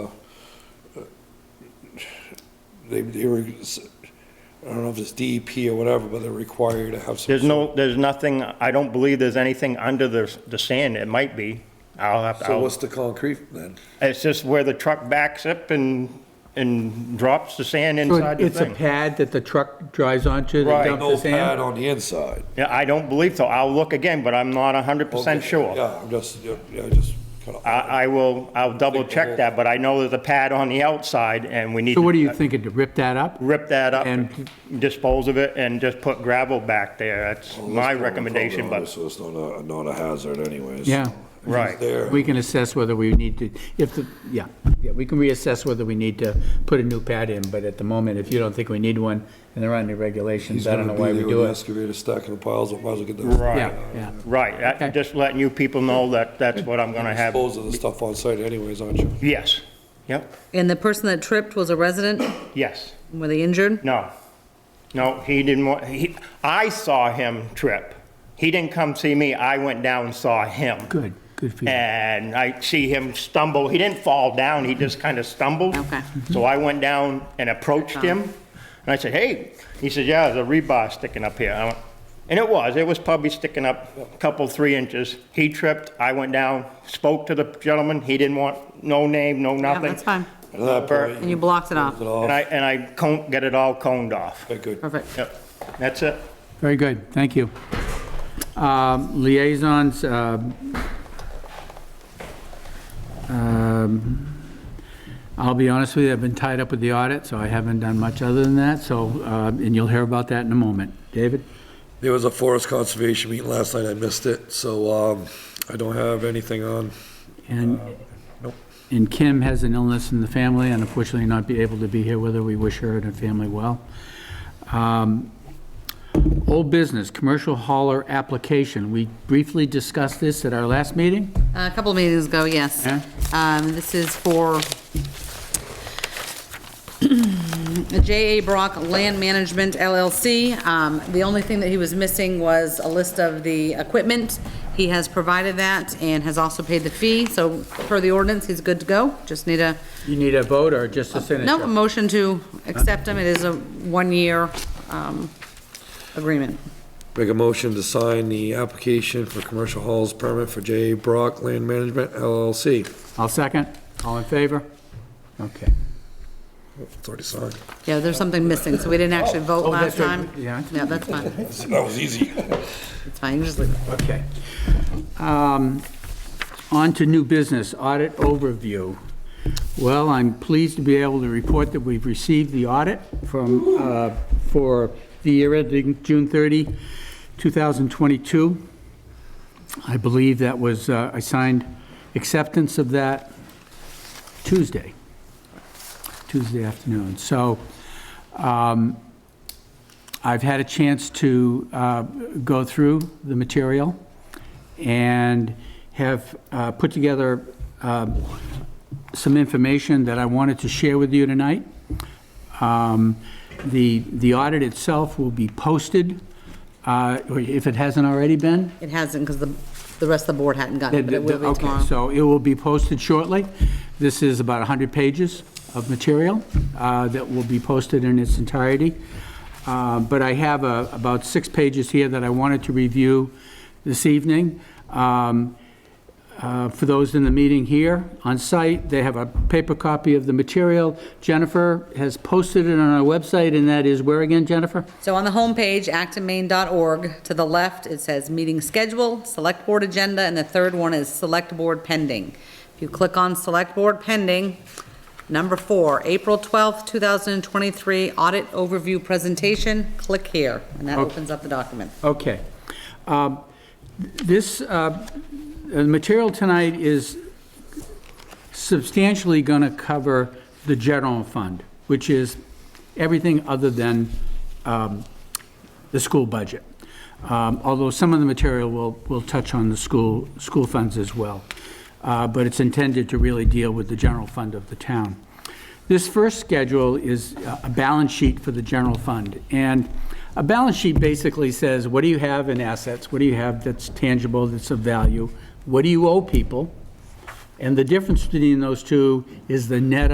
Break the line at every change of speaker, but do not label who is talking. they, they were, I don't know if it's DEP or whatever, but they're required to have some.
There's no, there's nothing, I don't believe there's anything under the, the sand. It might be. I'll have to,
So
I'll-
what's the concrete then?
it's just where the truck backs up and, and drops the sand
So
inside the
It's a
thing.
pad that the truck drives onto
Right.
that dumps the
No pad
sand?
on the inside.
Yeah, I don't believe so. I'll look again, but I'm not hundred percent
Okay,
sure. Uh,
Yeah, I'm just, yeah, yeah, just kind of.
I, I will, I'll double check that, but I know there's a pad on the outside and we need.
So what
to uh,
are you thinking, to rip that up?
Rip that up and
And-
dispose of it and just put gravel back there. That's my recommendation, but,
So it's not a, not a hazard anyways.
Yeah.
right.
There.
We can assess whether we need to, if the, yeah, yeah, we can reassess whether we need to put a new pad in, but at the moment, if you don't think we need one, and there aren't any regulations,
He's
I don't
gonna
know
be
why
there
we
with
do
the
it.
Excavator stacking the piles, up, might as well get the.
Right,
Yeah, yeah.
right. That- Just letting you people know that that's what I'm gonna have.
Dispose of the stuff on site anyways, aren't you?
Yes, yep,
And the person that tripped was a resident?
yes.
Were they injured?
No, no, he didn't want, he, I saw him trip. He didn't come see me, I went down and saw him.
Good, good for you.
And I see him stumble, he didn't fall down, he just kind of stumbled.
Okay.
So I went down and approached him, and I said, hey, he said, yeah, there's a rebar sticking up here. I went- And it was, it was probably sticking up a couple, three inches. He tripped, I went down, spoke to the gentleman, he didn't want, no name, no
Yeah,
nothing.
that's fine.
At that
Bert.
point,
And you blocked it off.
it
And
off.
I, and I coned, get it all coned off.
Okay, good.
Perfect.
Yep, that's it.
Very good, thank you. Um, Liaisons, um, um, I'll be honest with you, I've been tied up with the audit, so I haven't done much other than that, so, uh, and you'll hear about that in a moment. David?
There was a forest conservation meeting last night, I missed it, so, um, I don't have anything on.
And,
nope.
and Kim has an illness in the family and unfortunately not be able to be here with her. We wish her and her family well. Um, Old business, commercial hauler application. We briefly discussed this at our last meeting.
Uh, A couple of meetings ago, yes.
Yeah.
Um, This is for J.A. Brock Land Management LLC. Um, The only thing that he was missing was a list of the equipment. He has provided that and has also paid the fee, so per the ordinance, he's good to go. Just need a,
You need a vote or just a signature?
no, a motion to accept him. It is a one-year um, agreement.
Make a motion to sign the application for commercial halls permit for J. Brock Land Management LLC.
I'll second. All in favor? Okay.
It's already signed.
Yeah, there's something missing, so we didn't actually vote
Oh,
last
that's right.
time.
Yeah.
Yeah, that's fine.
That was easy.
It's fine, you just leave it.
Okay. Um, On to new business, audit overview. Well, I'm pleased to be able to report that we've received the audit from, uh, for the year ending June 30, 2022. I believe that was, uh, I signed acceptance of that Tuesday, Tuesday afternoon. So um, I've had a chance to uh, go through the material and have uh, put together um, some information that I wanted to share with you tonight. Um, The the audit itself will be posted, uh, or if it hasn't already been.
It hasn't, because the, the rest of the board hadn't gotten it, but it will be
Okay,
tomorrow.
so it will be posted shortly. This is about 100 pages of material uh, that will be posted in its entirety. Uh, But I have uh, about six pages here that I wanted to review this evening. Um, uh, For those in the meeting here on site, they have a paper copy of the material. Jennifer has posted it on our website, and that is where again, Jennifer?
So on the homepage, actonmain.org, to the left, it says meeting schedule, select board agenda, and the third one is select board pending. If you click on select board pending, number four, April 12th, 2023, audit overview presentation, click here, and
Oh.
that opens up the document.
Okay. Um, This, uh, the material tonight is substantially going to cover the general fund, which is everything other than um, the school budget. Um, Although some of the material will, will touch on the school, school funds as well. Uh, But it's intended to really deal with the general fund of the town. This first schedule is a- a balance sheet for the general fund. And a balance sheet basically says, what do you have in assets? What do you have that's tangible, that's of value? What do you owe people? And the difference between those two is the net